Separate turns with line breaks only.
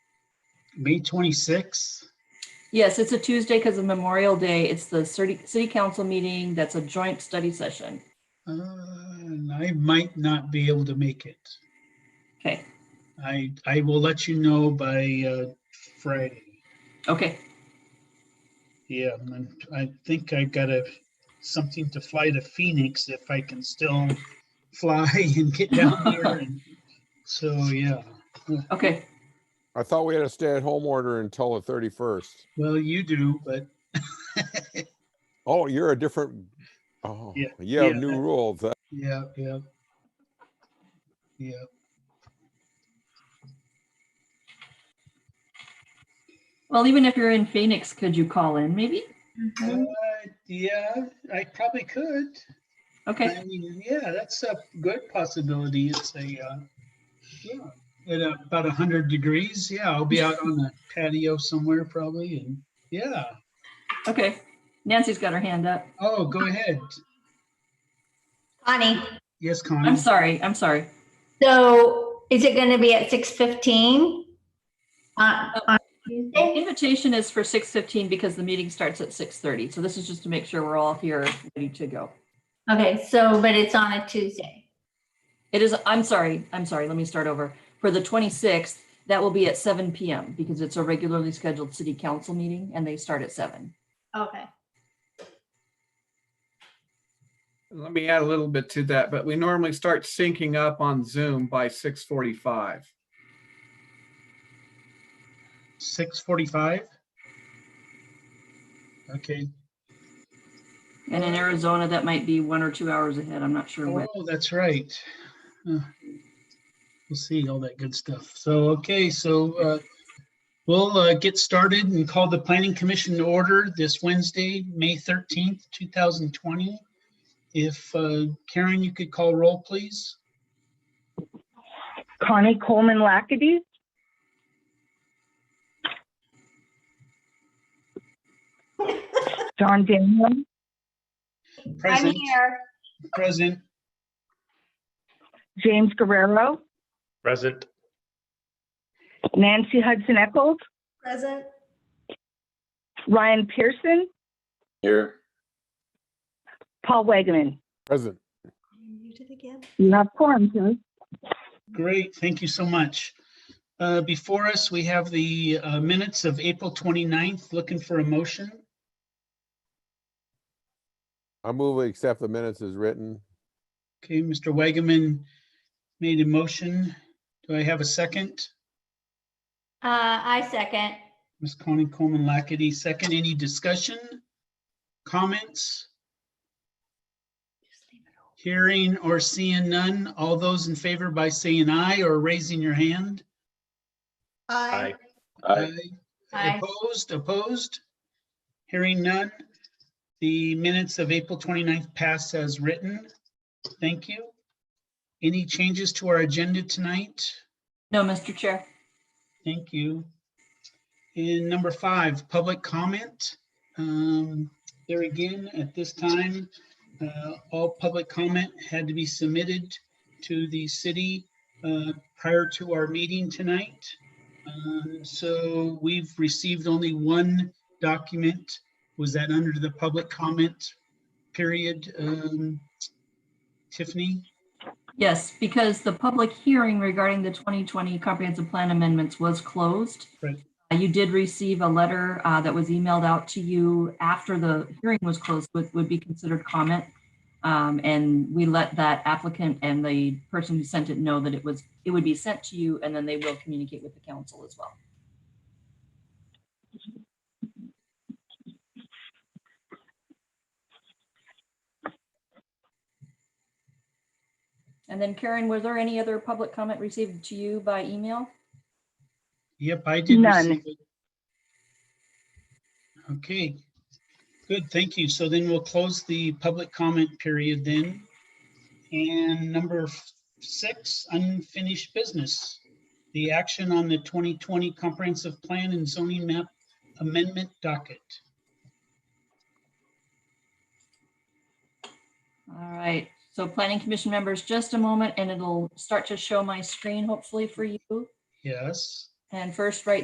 May 26th.
Yes, it's a Tuesday because of Memorial Day. It's the city, city council meeting. That's a joint study session.
Uh, and I might not be able to make it.
Okay,
I, I will let you know by uh, Friday.
okay,
Yeah, I'm- I think I got a, something to fly to Phoenix if I can still fly and get down there. and- So, yeah.
okay.
I thought we had a stay-at-home order until the thirty-first.
Well, you do, but
Oh, you're a different, oh,
Yeah,
you have
yeah.
new rules. That-
yeah, yeah. Yeah,
Well, even if you're in Phoenix, could you call in maybe?
Uh, yeah, I probably could.
Okay,
I mean, yeah, that's a good possibility. It's a, uh, yeah, at about a hundred degrees. Yeah, I'll be out on the patio somewhere probably and, yeah.
okay. Nancy's got her hand up.
Oh, go ahead.
Connie,
Yes, Connie?
I'm sorry, I'm sorry.
so is it going to be at 6:15? on- on
The
Tuesday?
Invitation is for six fifteen because the meeting starts at six thirty. So this is just to make sure we're all here ready to go.
Okay, so, but it's on a Tuesday.
It is, I'm sorry, I'm sorry, let me start over. For the 26th, that will be at seven PM because it's a regularly scheduled city council meeting and they start at seven.
Okay.
Let me add a little bit to that, but we normally start syncing up on Zoom by six forty-five.
Six forty-five? Okay,
And in Arizona, that might be one or two hours ahead. I'm not sure when.
oh, that's right. Uh, We'll see all that good stuff. So, okay, so uh, we'll uh, get started and call the planning commission to order this Wednesday, May thirteenth, two thousand twenty. If uh, Karen, you could call roll, please.
Connie Coleman Lackady. John Daniel,
I'm
Present,
here.
present,
James Guerrero,
Present.
Nancy Hudson Echols,
Present.
Ryan Pearson,
Here.
Paul Wegman.
Present.
You have quorum, sir.
Great, thank you so much. Uh, Before us, we have the uh, minutes of April 29th, looking for a motion.
I move we accept the minutes as written.
Okay, Mr. Wagaman made a motion. Do I have a second?
Uh, I second.
Ms. Connie Coleman Lackady, second. Any discussion? Comments? Hearing or seeing none? All those in favor by saying aye or raising your hand?
Aye.
Aye.
Opposed, opposed? Hearing none. The minutes of April 29th pass as written. Thank you. Any changes to our agenda tonight?
No, Mr. Chair.
Thank you. And number five, public comment. Um, There again, at this time, uh, all public comment had to be submitted to the city uh, prior to our meeting tonight. Um, So we've received only one document. Was that under the public comment period? um, Tiffany?
Yes, because the public hearing regarding the 2020 comprehensive plan amendments was closed.
Right.
Uh, You did receive a letter uh, that was emailed out to you after the hearing was closed, would, would be considered comment. Um, And we let that applicant and the person who sent it know that it was, it would be sent to you, and then they will communicate with the council as well. And then Karen, was there any other public comment received to you by email?
Yep, I did.
None.
receive it. Okay, good, thank you. So then we'll close the public comment period then. And number f- six, unfinished business. The action on the 2020 comprehensive plan and zoning map amendment docket.
All right, so planning commission members, just a moment and it'll start to show my screen hopefully for you.
Yes.
And first, right